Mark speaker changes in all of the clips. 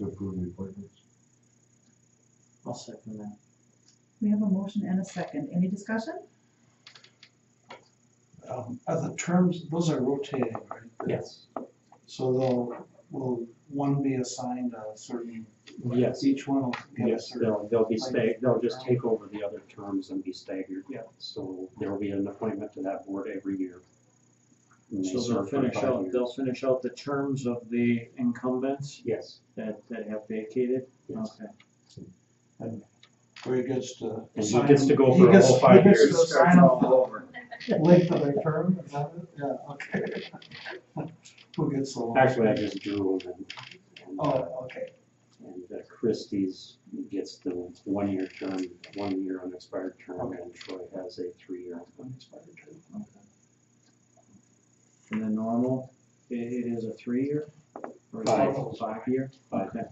Speaker 1: approve the appointments.
Speaker 2: I'll second that.
Speaker 3: We have a motion and a second. Any discussion?
Speaker 4: Um, Are the terms, those are rotating, right?
Speaker 2: Yes,
Speaker 4: So they'll, will one be assigned a certain,
Speaker 2: yes,
Speaker 4: each one will get a
Speaker 2: yes,
Speaker 4: certain?
Speaker 2: they'll, they'll be
Speaker 4: Like-
Speaker 2: stag, they'll just take over the other terms and be staggered. Yeah. So there'll be an appointment to that board every year. And they
Speaker 5: So they'll
Speaker 2: serve for
Speaker 5: finish
Speaker 2: five
Speaker 5: out, they'll
Speaker 2: years.
Speaker 5: finish out the terms of the incumbents
Speaker 2: Yes,
Speaker 5: that, that have vacated?
Speaker 2: yes.
Speaker 5: Okay.
Speaker 4: Where he gets to.
Speaker 2: And he
Speaker 4: assign-
Speaker 2: gets to go
Speaker 4: he
Speaker 2: for a
Speaker 4: gets-
Speaker 2: whole five
Speaker 4: he gets
Speaker 2: years.
Speaker 4: to assign all the Length of their term, is that it? Yeah, okay. Who gets the one?
Speaker 2: Actually, I just drew them and, and, uh,
Speaker 4: Oh, okay.
Speaker 2: and uh, Christie's gets the one-year term, one-year unexpired term, and Troy has a three-year unexpired term.
Speaker 5: And the normal, i- it is a three-year? or is it
Speaker 2: Five.
Speaker 5: a Five-year?
Speaker 2: Five.
Speaker 5: Okay.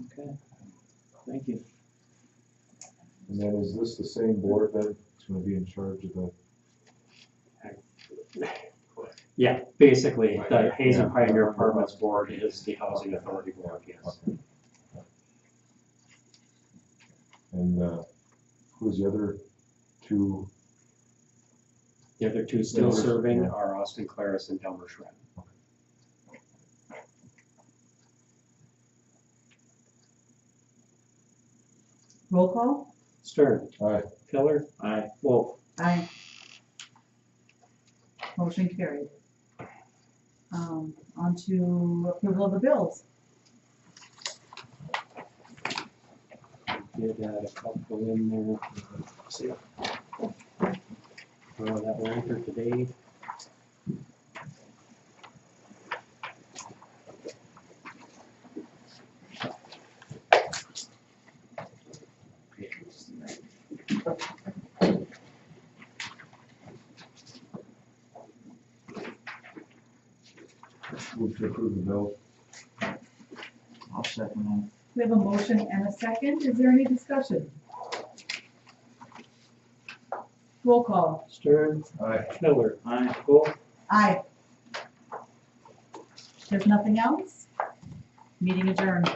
Speaker 5: Okay, thank you.
Speaker 1: And then is this the same board that's gonna be in charge of the,
Speaker 2: Yeah, basically, the
Speaker 1: Right.
Speaker 2: Hazen
Speaker 1: Yeah.
Speaker 2: Pioneer Apartments Board is the Housing Authority Board, yes.
Speaker 1: and, uh, who's the other two?
Speaker 2: The other two still
Speaker 1: Delmer-
Speaker 2: serving
Speaker 1: yeah.
Speaker 2: are Austin Claris and Delmer Schreck.
Speaker 3: Roll call?
Speaker 2: Stern,
Speaker 1: Aye.
Speaker 2: Pillar,
Speaker 5: Aye.
Speaker 2: Wolf.
Speaker 3: Aye. Motion carried. Um, on to approval of the bills.
Speaker 2: Did add a couple in there. See? Well, that will enter today.
Speaker 1: Move to approve the bill.
Speaker 2: I'll second
Speaker 3: We have a motion and a second. Is there any discussion? Roll call?
Speaker 2: Stern,
Speaker 1: Aye.
Speaker 2: Pillar,
Speaker 5: Aye.
Speaker 2: Wolf.
Speaker 3: Aye. There's nothing else? Meeting adjourned.